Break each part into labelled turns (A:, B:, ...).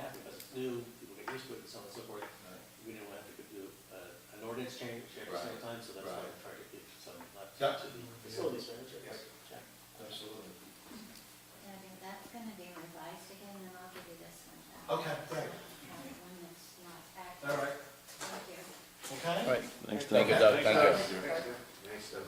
A: uh, do, people get used to it and so on and so forth. We didn't want to have to do uh, an ordinance change at the same
B: Right,
A: time, so that's why I
B: right.
A: tried to give some, not to
B: Yeah.
A: the facilities manager. but,
B: Yes.
A: yeah.
B: Absolutely.
C: Yeah, I mean, that's gonna be revised again, and I'll give you this one back.
B: Okay, great.
C: Uh, One that's not accurate.
B: All right,
C: Thank you.
B: okay?
D: All right, thanks, Doug.
E: Thank you, Doug. Thank you.
B: Thanks, Doug.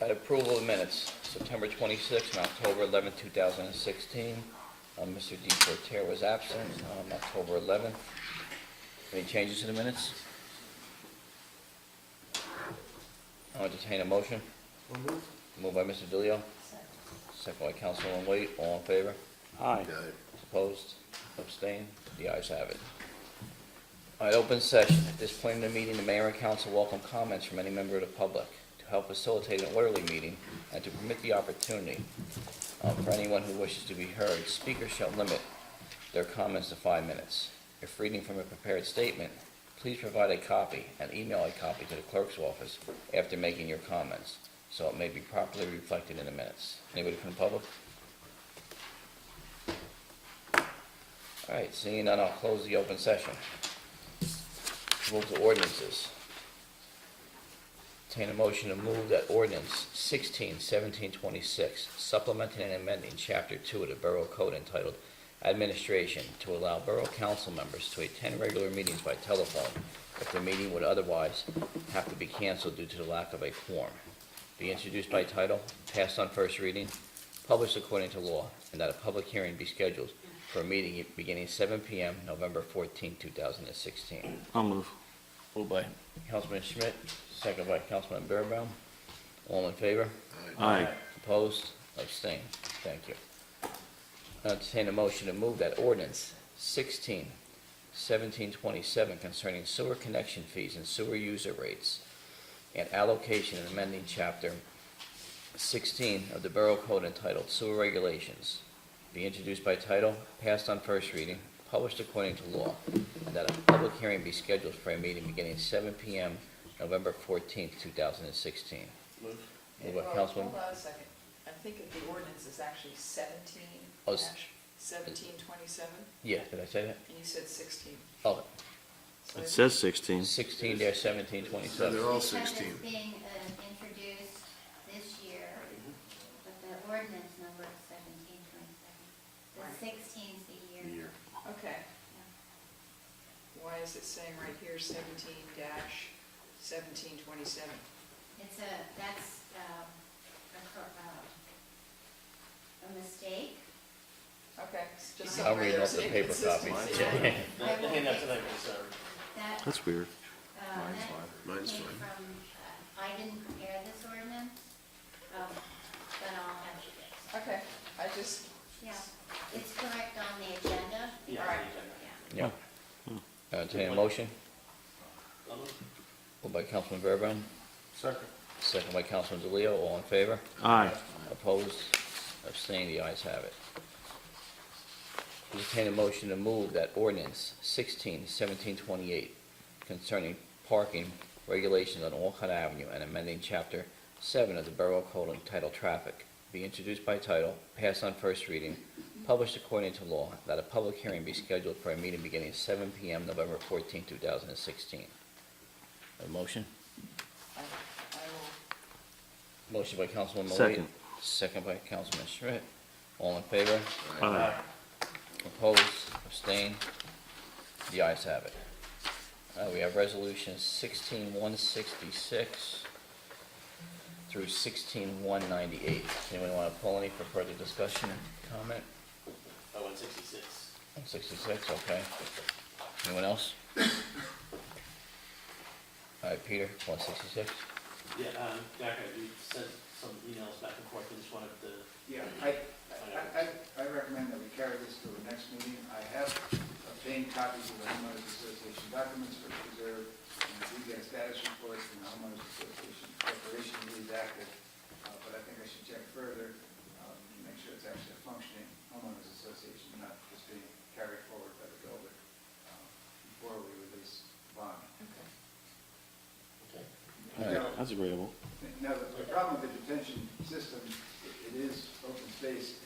E: At approval of minutes, September 26th and October 11th, 2016. Uh, Mr. DePorter was absent on October 11th. Any changes to the minutes? I'll entertain a motion. Moved by Mr. DeLeo,
C: So,
E: second by Councilman Wade. All in favor?
D: Aye.
E: Opposed? Abstained? The ayes have it. All right, open session. At this point in the meeting, the mayor and council welcome comments from any member of the public to help facilitate an orderly meeting and to permit the opportunity um, for anyone who wishes to be heard. Speakers shall limit their comments to five minutes. If reading from a prepared statement, please provide a copy and email a copy to the clerk's office after making your comments, so it may be properly reflected in the minutes. Anybody from the public? All right, seeing none, I'll close the open session. Move to ordinances. Entertain a motion to move that ordinance 16, 1726, supplementing and amending Chapter 2 of the Borough Code entitled Administration to allow Borough Council members to attend regular meetings by telephone if the meeting would otherwise have to be canceled due to the lack of a quorum. Be introduced by title, passed on first reading, published according to law, and that a public hearing be scheduled for a meeting beginning 7 PM, November 14, 2016.
D: I'll move. Moved by.
E: Councilman Schmidt, second by Councilman Bearbaum. All in favor?
D: Aye.
E: Opposed? Abstained? Thank you. I'll Entertain a motion to move that ordinance 16, 1727 concerning sewer connection fees and sewer user rates and allocation and amending Chapter 16 of the Borough Code entitled Sewer Regulations be introduced by title, passed on first reading, published according to law, and that a public hearing be scheduled for a meeting beginning 7 PM, November 14th, 2016.
A: Move.
E: Moved by
F: Hold on-
E: Councilman-
F: Hold on a second. I think that the ordinance is actually seventeen
E: Oh, s-
F: dash seventeen twenty-seven,
E: Yeah, did I say that?
F: and you said sixteen.
E: Oh,
F: So I-
D: It says 16.
E: 16 dash 17,
B: So they're
E: 27.
B: all
C: because it's
B: 16.
C: being uh, introduced this year, but the ordinance number is seventeen twenty-seven. The
F: Right.
C: sixteen's the year.
F: Okay. Why is it saying right here seventeen dash seventeen twenty-seven?
C: It's a, that's, um, a, cor- uh, a mistake.
F: Okay, it's just
E: I'll
F: somewhere
E: read off
F: there's
E: the paper copy.
F: inconsistency.
C: Yeah.
A: The the handout tonight was, uh,
C: That, uh,
D: That's weird.
C: that
B: Mine's
C: came
B: fine.
C: from, uh, I didn't prepare this ordinance, um, but I'll have you guys.
F: Okay, I just,
C: Yeah, it's correct on the agenda.
A: yeah,
F: All right.
A: the agenda.
C: Yeah.
E: Yeah. Uh, Entertain a motion,
A: I'll move.
E: moved by Councilman Verboen. Second. Second by Councilman DeLeo, all in favor?
D: Aye.
E: Opposed, abstained, the ayes have it. Entertain a motion to move that ordinance 16, 1728 concerning parking regulations on Walcott Avenue and amending Chapter 7 of the Borough Code entitled Traffic be introduced by title, passed on first reading, published according to law, that a public hearing be scheduled for a meeting beginning 7 PM November 14, 2016. A motion?
F: I, I will,
E: Motion by Councilman Malley.
D: Second.
E: Second by Councilman Schmidt. All in favor?
D: Aye.
E: Opposed? Abstained? The ayes have it. Uh, we have resolutions sixteen one sixty-six through sixteen one ninety-eight. Anyone want to pull any for further discussion and comment?
A: Oh, one sixty-six.
E: One sixty-six, okay. Anyone else? All right, Peter, one sixty-six?
A: Yeah, um, Jack, I- you sent some emails back and forth, I just wanted to,
G: Yeah, I, I, I I recommend that we carry this to the next meeting. I have obtained copies of the homeowners association documents for preserve, and the DES status reports and the homeowners association corporation lead active. Uh, But I think I should check further, um, to make sure it's actually a functioning homeowners association, not just being carried forward by the builder, um, before we release bond.
F: okay.
A: okay.
E: All right.
G: Now,
D: That's agreeable.
G: now, the the problem with the detention system, it- it is open space,